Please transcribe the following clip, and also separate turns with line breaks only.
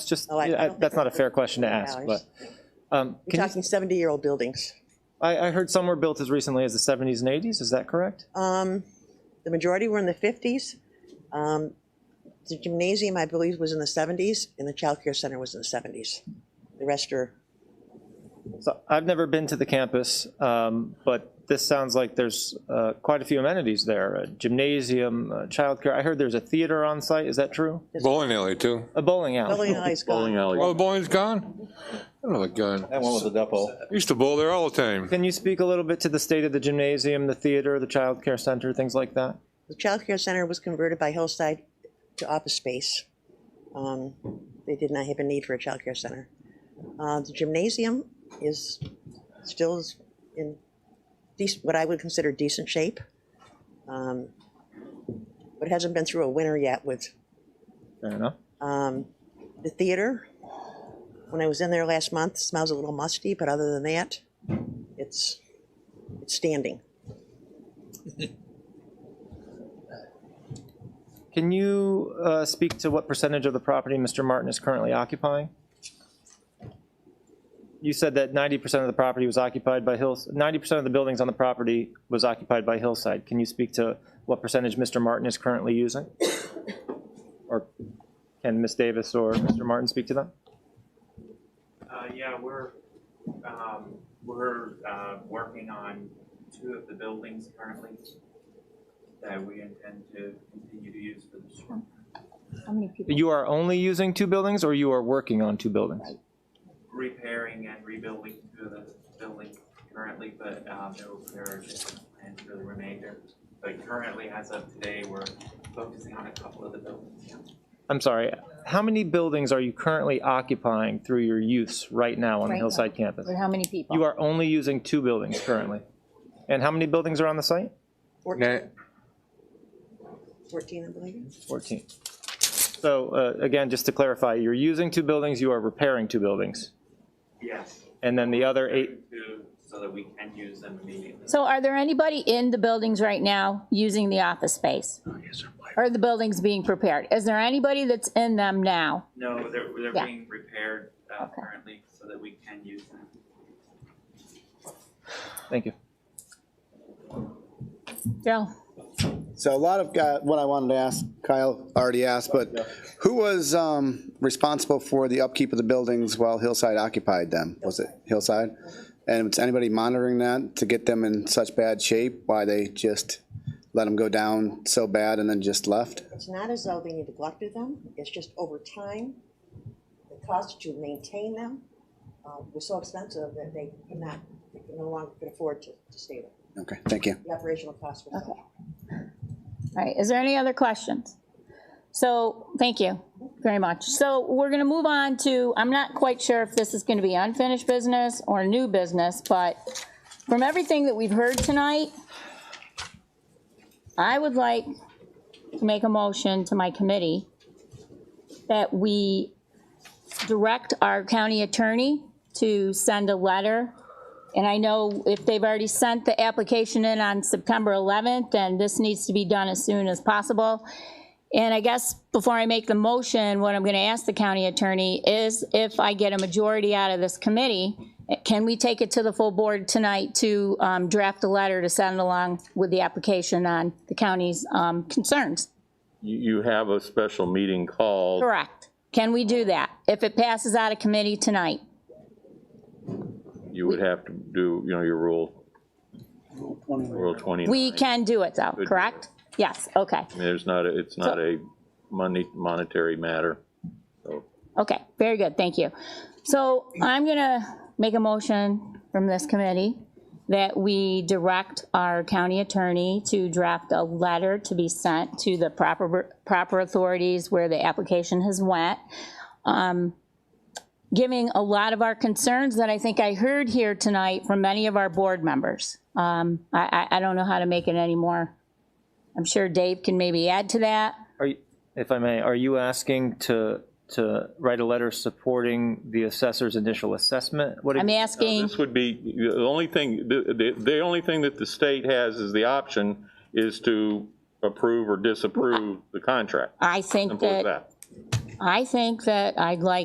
just,
Oh, I- I
yeah, I-
don't
that's
think
not a fair question to ask, but.
ours.
um,
We're
can you-
talking 70-year-old buildings.
I, I heard some were built as recently as the 70s and 80s, is that correct?
Um, The majority were in the 50s. Um, The gymnasium, I believe, was in the 70s, and the childcare center was in the 70s. The rest are,
So I've never been to the campus, um, but this sounds like there's uh, quite a few amenities there, a gymnasium, uh, childcare. I heard there's a theater on site, is that true?
Bowling alley too.
A bowling alley.
bowling alleys
Bowling
gone.
alley.
Oh, the bowling's gone? Oh, my God.
That one was a depot.
Used to bowl there all the time.
Can you speak a little bit to the state of the gymnasium, the theater, the childcare center, things like that?
The childcare center was converted by Hillside to office space. Um, They did not have a need for a childcare center. Uh, The gymnasium is still is in decent, what I would consider decent shape. Um, But it hasn't been through a winter yet with
Fair enough.
Um, the theater, when I was in there last month, smells a little musty, but other than that, it's, it's standing.
Can you uh, speak to what percentage of the property Mr. Martin is currently occupying? You said that 90% of the property was occupied by Hills, 90% of the buildings on the property was occupied by Hillside. Can you speak to what percentage Mr. Martin is currently using? Or can Ms. Davis or Mr. Martin speak to that?
Uh, yeah, we're, um, we're, uh, working on two of the buildings currently that we intend to continue to use for the storm.
How many people?
You are only using two buildings or you are working on two buildings?
Repairing and rebuilding two of the buildings currently, but, um, there will- there are different plans for the remainder. But currently, as of today, we're focusing on a couple of the buildings. yeah.
I'm sorry, how many buildings are you currently occupying through your use right now on the
Right now.
Hillside campus?
Or how many people?
You are only using two buildings currently. And how many buildings are on the site?
Nah,
Fourteen, fourteen, I believe.
14. So uh, again, just to clarify, you're using two buildings, you are repairing two buildings.
Yes.
And then the other eight,
Two, So that we can use them immediately.
So are there anybody in the buildings right now using the office space? Are the buildings being prepared? Is there anybody that's in them now?
No, they're, they're
Yeah.
being repaired, uh,
Okay.
currently, so that we can use them.
thank you.
Joe?
So a lot of, uh, what I wanted to ask, Kyle already asked, but who was um, responsible for the upkeep of the buildings while Hillside occupied them? Was it Hillside? And was anybody monitoring that to get them in such bad shape? Why they just let them go down so bad and then just left?
It's not as though they neglected them, it's just over time, the cost to maintain them uh, was so expensive that they could not, they could no longer could afford to, to stay there.
Okay, thank you.
The operational costs were.
Okay. All right, is there any other questions? So, thank you very much. So we're going to move on to, I'm not quite sure if this is going to be unfinished business or new business, but from everything that we've heard tonight, I would like to make a motion to my committee that we direct our county attorney to send a letter and I know if they've already sent the application in on September 11th, then this needs to be done as soon as possible. And I guess before I make the motion, what I'm going to ask the county attorney is if I get a majority out of this committee, can we take it to the full board tonight to um, draft a letter to send along with the application on the county's um, concerns?
You, you have a special meeting called.
Correct. Can we do that if it passes out of committee tonight?
You would have to do, you know, your rule. Rule 29.
We can do it though,
do it.
correct? Yes, okay.
There's not, a- it's not a money, monetary matter. So
Okay, very good, thank you. So I'm gonna make a motion from this committee that we direct our county attorney to draft a letter to be sent to the proper, proper authorities where the application has went. um, Giving a lot of our concerns that I think I heard here tonight from many of our board members. Um, I, I, I don't know how to make it any more. I'm sure Dave can maybe add to that.
Are you, if I may, are you asking to, to write a letter supporting the assessor's initial assessment? What
I'm
if-
asking.
This would be, the only thing, the, the, the only thing that the state has is the option is to approve or disapprove the contract.
I think
Simple as
that,
that.
I think that I'd like